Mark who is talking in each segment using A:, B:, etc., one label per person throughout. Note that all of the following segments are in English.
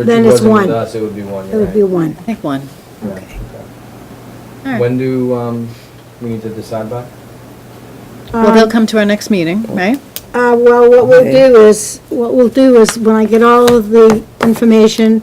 A: But
B: Then
A: she
B: it's
A: wasn't with
B: one.
A: us, It would be one,
B: It
A: you're
B: would be
A: right.
B: one.
C: I think one.
A: Yeah,
C: Okay. All
A: okay.
C: right.
A: When do, um, we need to decide by?
C: Well, they'll come to our next meeting, right?
B: Uh, well, what we'll do is, what we'll do is, when I get all of the information,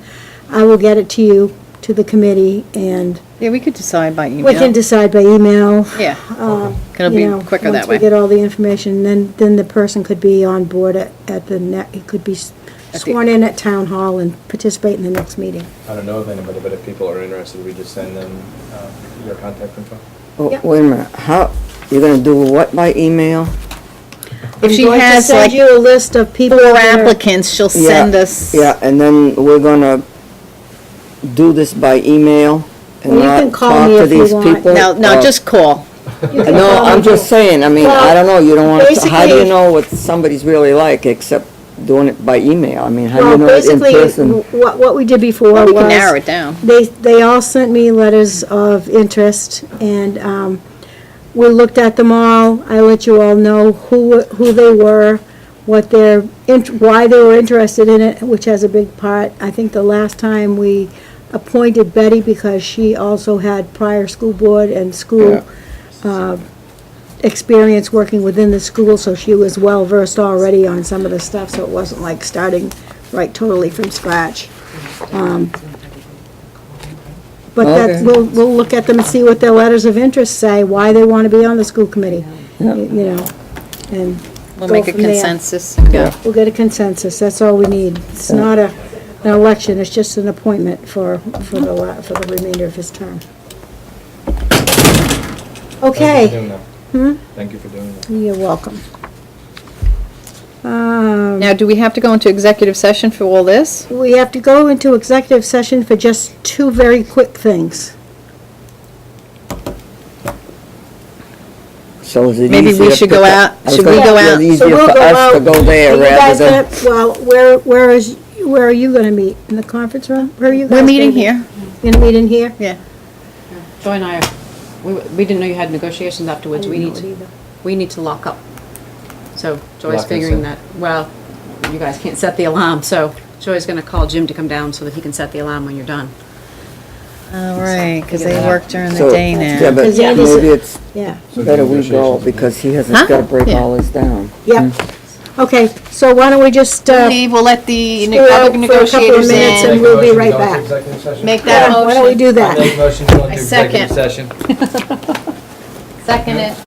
B: I will get it to you, to the committee, and
C: Yeah, we could decide by email.
B: we can decide by email.
C: Yeah.
B: uh,
C: It'll
B: you
C: be
B: know,
C: quicker that
B: Once we
C: way.
B: get all the information, then, then the person could be on board at, at the net, he could be s-
C: At the-
B: sworn in at town hall and participate in the next meeting.
A: I don't know of anybody, but if people are interested, we just send them, uh, your contact info.
D: Oh,
B: Yep.
D: Wait a minute, how, you're gonna do what by email?
C: If she
B: I'm going to
C: has
B: send
C: like
B: you a list of people
C: four
B: that are-
C: applicants, she'll
D: Yeah,
C: send us.
D: Yeah, and then we're gonna do this by email and
B: Well, you
D: not
B: can call
D: talk
B: me
D: to
B: if you
D: these
B: want.
D: people?
C: No, no,
D: or-
C: just call.
B: you can
D: No,
B: call
D: I'm
B: me.
D: just saying, I mean, I
B: Well,
D: don't know, you don't wanna, how do you
B: basically-
D: know what somebody's really like except doing it by email? I mean, how do
B: Well,
D: you know it in
B: basically,
D: person?
B: w- What, what we did before
C: Or
B: was.
C: we can narrow it down.
B: They, they all sent me letters of interest, and um, we looked at them all. I let you all know who, who they were, what their, int- why they were interested in it, which has a big part. I think the last time we appointed Betty because she also had prior school board and
D: Yeah.
B: school uh, experience working within the school, so she was well-versed already on some of the stuff, so it wasn't like starting right totally from scratch. Um, But that,
D: Okay.
B: we'll, we'll look at them and see what their letters of interest say, why they want to be on the school committee, you know, and
C: We'll
B: go
C: make a
B: from there.
C: consensus and go.
B: We'll get a consensus, that's all we need. It's not a, an election, it's just an appointment for, for the, la- for the remainder of his term.
A: Thank you for
B: Okay, Hmm?
A: doing that. Thank you for doing that.
B: you're welcome. Um,
C: Now, do we have to go into executive session for all this?
B: we have to go into executive session for just two very quick things.
D: So is it
C: Maybe we
D: easier to
C: should go
D: pick
C: out-
D: up- I was
C: should we
D: gonna
C: go
D: say
C: out? So
D: It's
B: So
D: easier
B: we'll
D: for
B: go
D: us to
B: out.
D: go
B: Are
D: there
B: you guys
D: rather than.
B: gonna- Well, where, where is, where are you gonna meet? In the conference room? Where are you guys?
C: We're
B: gonna
C: meeting
B: meet?
C: here,
B: You're gonna meet in here?
C: yeah.
E: Joy and I, we, we didn't know you had negotiations afterwards, we need to, we need to lock up. So
A: Lock
E: Joy's
A: us
E: figuring
A: in.
E: that, well, you guys can't set the alarm, so Joy's gonna call Jim to come down so that he can set the alarm when you're done.
C: All right, because they
E: Yeah.
C: work during the
D: So-
C: day
D: Yeah,
C: now.
D: but
B: Because Andy's-
D: maybe it's
B: Yeah.
A: So the
D: better we go
A: negotiations-
D: because he has, he's
C: Huh?
D: gotta break
C: Yeah.
D: all this down.
B: Yep.
D: Hmm.
B: Okay, so why don't we just, uh,
C: Leave, we'll let the
B: Stay out
C: other
B: for a couple of
C: negotiators
B: minutes
C: in.
B: and- we'll be
A: Make a motion to
B: right
A: go into
B: back.
A: executive session?
C: Make that
B: yeah, why don't we
C: motion.
B: do that?
A: I Make a motion to go
E: I
A: into
E: second.
A: executive session.
E: Second it.